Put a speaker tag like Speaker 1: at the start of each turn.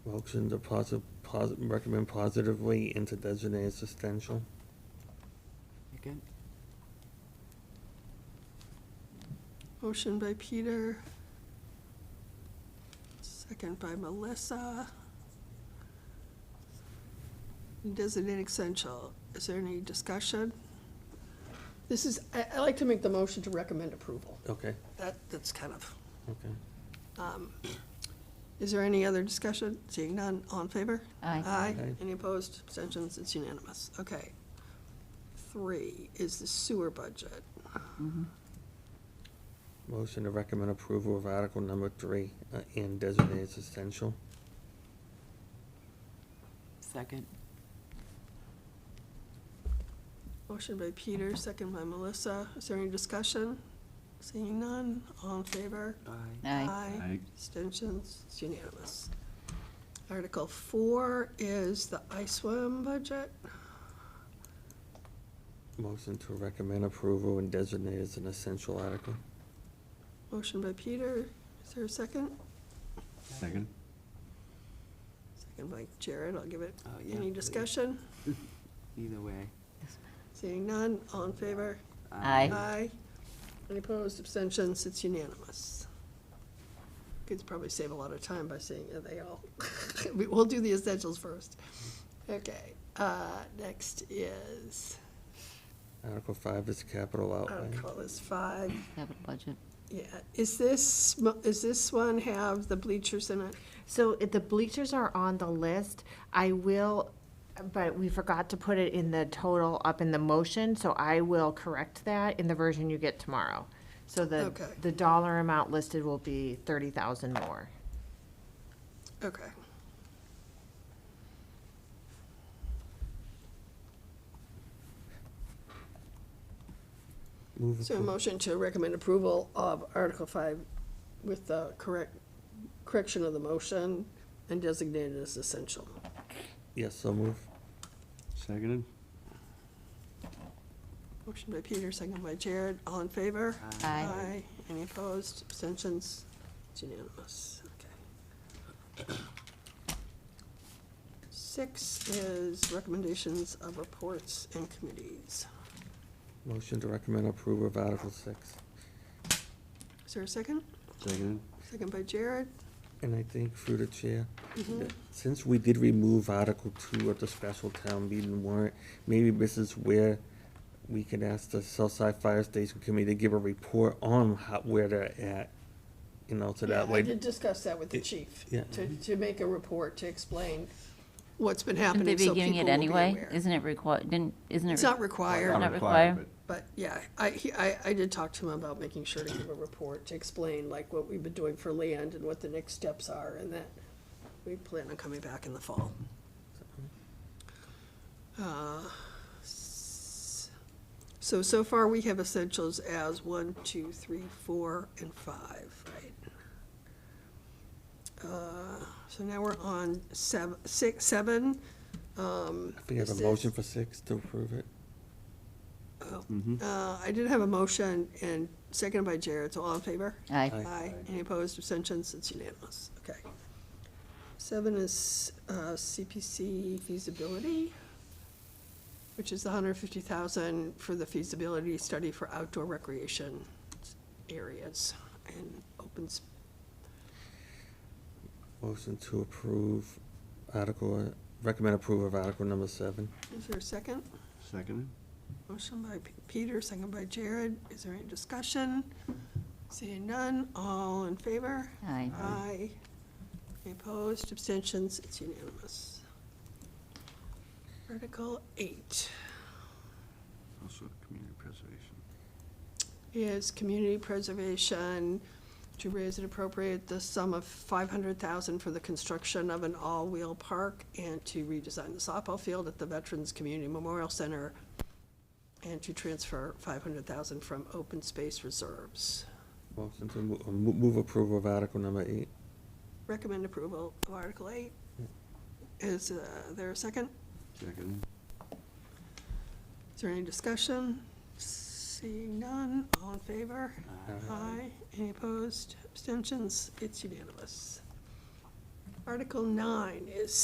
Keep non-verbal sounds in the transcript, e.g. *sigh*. Speaker 1: Motion to posi- posi- recommend positively and to designate as essential.
Speaker 2: Second?
Speaker 3: Motion by Peter. Second by Melissa. Designate essential. Is there any discussion?
Speaker 4: This is, I, I like to make the motion to recommend approval.
Speaker 1: Okay,
Speaker 3: That, that's kind of,
Speaker 1: okay.
Speaker 3: um, is there any other discussion? Seeing none, all in favor?
Speaker 2: Aye.
Speaker 1: Aye.
Speaker 3: Any opposed? Abstentions? It's unanimous. Okay. Three is the sewer budget.
Speaker 5: Mm-hmm.
Speaker 1: Motion to recommend approval of article number three uh, and designate as essential.
Speaker 2: Second?
Speaker 3: Motion by Peter, second by Melissa. Is there any discussion? Seeing none, all in favor?
Speaker 2: Aye.
Speaker 6: Aye.
Speaker 3: Abstentions? It's unanimous. Article four is the ISWAM budget.
Speaker 1: Motion to recommend approval and designate as an essential article.
Speaker 3: Motion by Peter, is there a second?
Speaker 6: Second?
Speaker 3: Second by Jared, I'll give it.
Speaker 2: Oh, yeah,
Speaker 3: Any
Speaker 2: please.
Speaker 3: discussion?
Speaker 2: Either way.
Speaker 3: Seeing none, all in favor?
Speaker 2: Aye.
Speaker 3: Aye. Any opposed, abstentions, it's unanimous. Could probably save a lot of time by saying that they all, *laughs* We- we'll do the essentials first. Okay, uh, next is,
Speaker 1: Article five is capital
Speaker 3: I
Speaker 1: outlay.
Speaker 3: don't call this five,
Speaker 5: Capital budget.
Speaker 3: yeah, is this, mo- is this one have the bleachers in it?
Speaker 7: So if the bleachers are on the list. I will, but we forgot to put it in the total up in the motion, so I will correct that in the version you get tomorrow. So the,
Speaker 3: Okay.
Speaker 7: the dollar amount listed will be thirty thousand more.
Speaker 3: Okay.
Speaker 1: Move
Speaker 3: So a
Speaker 1: appro-
Speaker 3: motion to recommend approval of Article Five with the correct, correction of the motion and designated as essential.
Speaker 1: Yes, so move.
Speaker 6: Seconded?
Speaker 3: Motion by Peter, second by Jared. All in favor?
Speaker 5: Aye.
Speaker 3: Any opposed? Abstentions? It's unanimous. Okay. Six is recommendations of reports and committees.
Speaker 1: Motion to recommend approval of article six.
Speaker 3: Is there a second?
Speaker 6: Seconded?
Speaker 3: Second by Jared?
Speaker 1: And I think through the chair,
Speaker 3: Mm-hmm.
Speaker 1: that since we did remove Article Two of the special town meeting warrant, maybe this is where we can ask the Southside Fire Station Committee to give a report on how, where they're at, you know, so that
Speaker 3: Yeah, I
Speaker 1: way.
Speaker 3: did discuss that with the
Speaker 1: It-
Speaker 3: chief,
Speaker 1: yeah.
Speaker 3: to, to make a report to explain what's been
Speaker 5: Shouldn't they
Speaker 3: happening,
Speaker 5: be
Speaker 3: so people will
Speaker 5: giving
Speaker 3: be
Speaker 5: it anyway?
Speaker 3: aware.
Speaker 5: Isn't it required, didn't, isn't it?
Speaker 3: It's not
Speaker 5: re-
Speaker 3: required.
Speaker 5: Not
Speaker 6: required,
Speaker 5: required.
Speaker 3: But yeah, I, he- I, I did talk to him about making sure to give a report to explain like what we've been doing for land and what the next steps are and that we plan on coming back in the fall. Uh, s- So, so far we have essentials as one, two, three, four, and five, right? Uh, So now we're on seven, six, seven. um,
Speaker 1: If we have a
Speaker 3: is this-
Speaker 1: motion for six to approve it,
Speaker 3: Oh,
Speaker 6: Mm-hmm.
Speaker 3: uh, I did have a motion and seconded by Jared, so all in favor?
Speaker 5: Aye.
Speaker 3: Aye. Any opposed, abstentions? It's unanimous. Okay. Seven is uh, CPC feasibility, which is the hundred fifty thousand for the feasibility study for outdoor recreation areas and open s-
Speaker 1: motion to approve Article, recommend approval of Article number seven.
Speaker 3: Is there a second?
Speaker 6: Seconded?
Speaker 3: Motion by P- Peter, second by Jared. Is there any discussion? Seeing none, all in favor?
Speaker 5: Aye.
Speaker 3: Aye. Any Opposed, abstentions, it's unanimous. Article eight
Speaker 6: Also community preservation.
Speaker 3: is community preservation to raise and appropriate the sum of five hundred thousand for the construction of an all-wheel park and to redesign the softball field at the Veterans Community Memorial Center and to transfer five hundred thousand from open space reserves.
Speaker 1: Motion to mo- uh, mo- move approval of Article number eight.
Speaker 3: Recommend approval of Article eight. Is uh, there a second?
Speaker 6: Seconded?
Speaker 3: Is there any discussion? Seeing none, all in favor?
Speaker 1: Aye.
Speaker 3: Aye. Any opposed? Abstentions? It's unanimous. Article nine is